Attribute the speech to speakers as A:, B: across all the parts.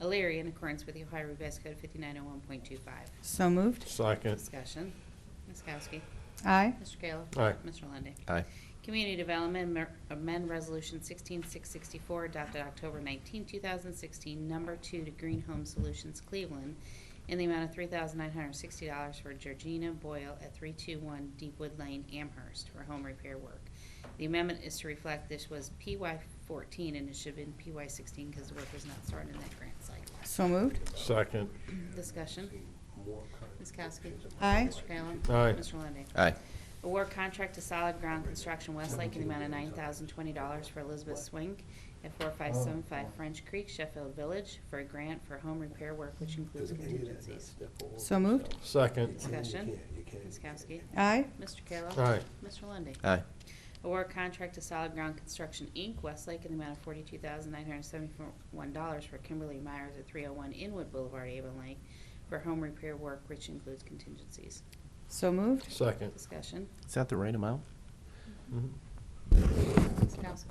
A: Elyria in accordance with the Ohio Revised Code 5901.25.
B: So moved.
C: Second.
A: Discussion. Ms. Kowski.
B: Aye.
A: Mr. Kayla.
C: Aye.
A: Mr. Lundey.
D: Aye.
A: Community Development amer- amend Resolution 16664 adopted October 19, 2016, number two to Green Home Solutions Cleveland in the amount of $3,960 for Georgina Boyle at 321 Deepwood Lane, Amherst for home repair work. The amendment is to reflect this was PY 14 and it should have been PY 16 because the work was not started in that grant cycle.
B: So moved.
C: Second.
A: Discussion. Ms. Kowski.
B: Aye.
A: Mr. Kayla.
C: Aye.
A: Mr. Lundey.
D: Aye.
A: Award contract to Solid Ground Construction Westlake in the amount of nine thousand twenty dollars for Elizabeth Swink at four five seven five French Creek, Sheffield Village, for a grant for home repair work which includes contingencies.
B: So moved.
C: Second.
A: Discussion, Ms. Kowski,
B: Aye.
A: Mr. Kayla.
C: Aye.
A: Mr. Lundy.
D: Aye.
A: Award contract to Solid Ground Construction, Inc., Westlake, in the amount of forty-two thousand nine hundred seventy-one dollars for Kimberly Myers at three oh one Inwood Boulevard, Avon Lake, for home repair work which includes contingencies.
B: So moved.
C: Second.
A: Discussion,
D: Is that the right amount?
C: Mhm.
A: Ms. Kowski,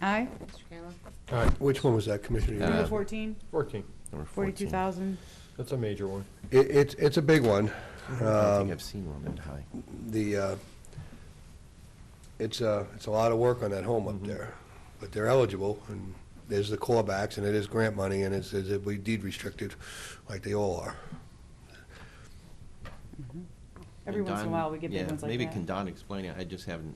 B: Aye.
A: Mr. Kayla.
C: Aye.
E: Which one was that, Commissioner?
D: Uh,
B: Number
E: Eubank?
B: 14,
C: Fourteen.
D: Number 14.
B: 42,000.
C: That's a major one.
E: It, it's, it's a big one.
D: I don't think
E: Um,
D: I've seen one that high.
E: The, uh, it's, uh, it's a lot of work on that home
D: Mm-hmm.
E: up there, but they're eligible, and there's the clawbacks, and it is grant money, and it's, it's we deed restricted, like they all are.
B: Every
D: And
B: once in a
D: Don-
B: while, we get big
D: yeah,
B: ones like
D: Maybe
B: that.
D: can Don explain it? I just haven't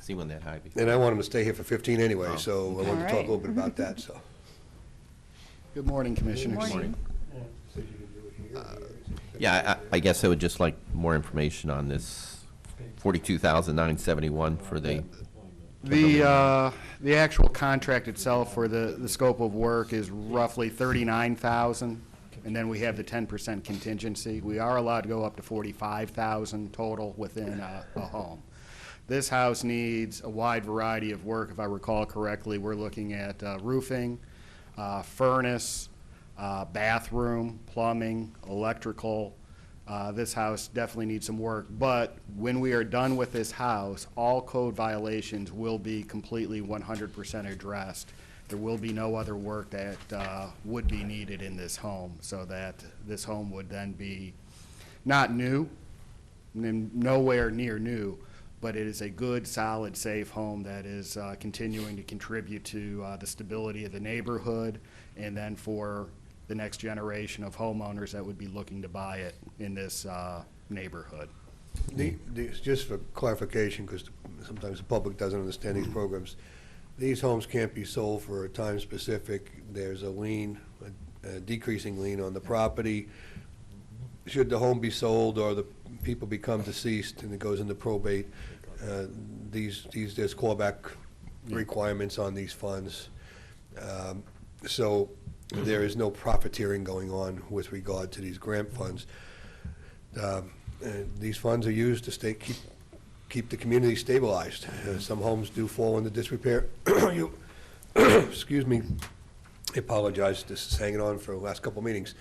D: seen one that high before.
E: And I want them to stay here for 15 anyway,
D: Oh.
E: so I want to talk a
B: Alright.
E: little bit about that, so.
F: Good morning, Commissioners.
B: Morning.
D: Yeah, I- I, I guess I would just like more information on this forty-two thousand nine seventy-one for the,
F: The, uh, the actual contract itself for the, the scope of work is roughly 39,000, and then we have the 10% contingency. We are allowed to go up to 45,000 total within a, a home. This house needs a wide variety of work, if I recall correctly. We're looking at uh, roofing, uh, furnace, uh, bathroom, plumbing, electrical. Uh, This house definitely needs some work, but when we are done with this house, all code violations will be completely 100% addressed. There will be no other work that uh, would be needed in this home, so that this home would then be not new, n- nowhere near new, but it is a good, solid, safe home that is uh, continuing to contribute to uh, the stability of the neighborhood, and then for the next generation of homeowners that would be looking to buy it in this uh, neighborhood.
E: The, the- just for clarification, because sometimes the public doesn't understand these programs, these homes can't be sold for a time specific. There's a lien, a- a decreasing lien on the property. Should the home be sold or the people become deceased and it goes into probate, uh, these, these, there's clawback requirements on these funds. Um, So there is no profiteering going on with regard to these grant funds. Um, uh, These funds are used to stay, keep, keep the community stabilized. Uh, Some homes do fall into disrepair. You- Excuse me, I apologize, this is hanging on for the last couple of meetings.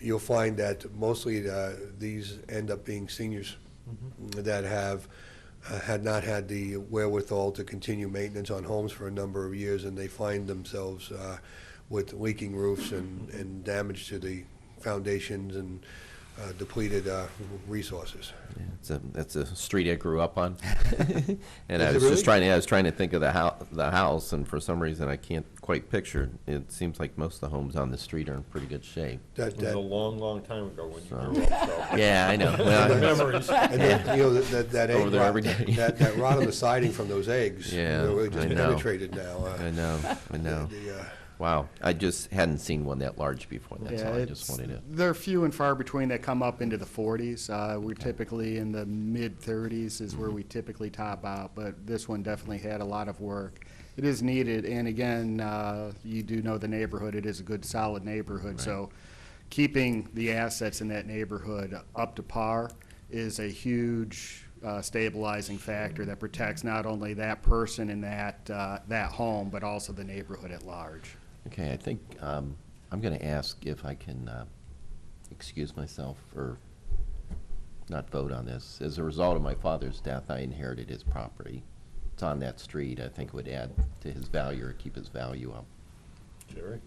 E: You'll find that mostly uh, these end up being seniors that have, uh, had not had the wherewithal to continue maintenance on homes for a number of years, and they find themselves uh, with leaking roofs and, and damage to the foundations and uh, depleted uh, resources.
D: yeah, it's a, that's a street I grew up on. And
E: Is
D: I was
E: it
D: just
E: really?
D: trying, to I was trying to think of the hou- the house, and for some reason I can't quite picture. it. It seems like most of the homes on the street are in pretty good shape.
E: That,
C: It was a
E: that,
C: long, long time ago when you
D: So-
C: grew up, so.
D: Yeah, I know. Well, I-
C: Memories.
E: and then, you know, that, that
D: Over
E: egg
D: there
E: rot,
D: every day.
E: that, that rot on the siding from those eggs,
D: Yeah,
E: they're really just
D: I know.
E: penetrated now. uh,
D: I know, I know.
E: the, uh,
D: Wow, I just hadn't seen one that large before, that's
F: Yeah,
D: all, I
F: it's-
D: just wanted to.
F: They're few and far between that come up into the 40s. Uh, We're typically in the mid-30s is
D: Mm-hmm.
F: where we typically top out, but this one definitely had a lot of work. It is needed, and again, uh, you do know the neighborhood, it is a good, solid neighborhood. So keeping the assets in that neighborhood up to par is a huge uh, stabilizing factor that protects not only that person and that, uh, that home, but also the neighborhood at large.
D: Okay, I think, um, I'm gonna ask if I can, uh, excuse myself or not vote on this. As a result of my father's death, I inherited his property. It's on that street, I think it would add to his value or keep his value up.
C: Jerry?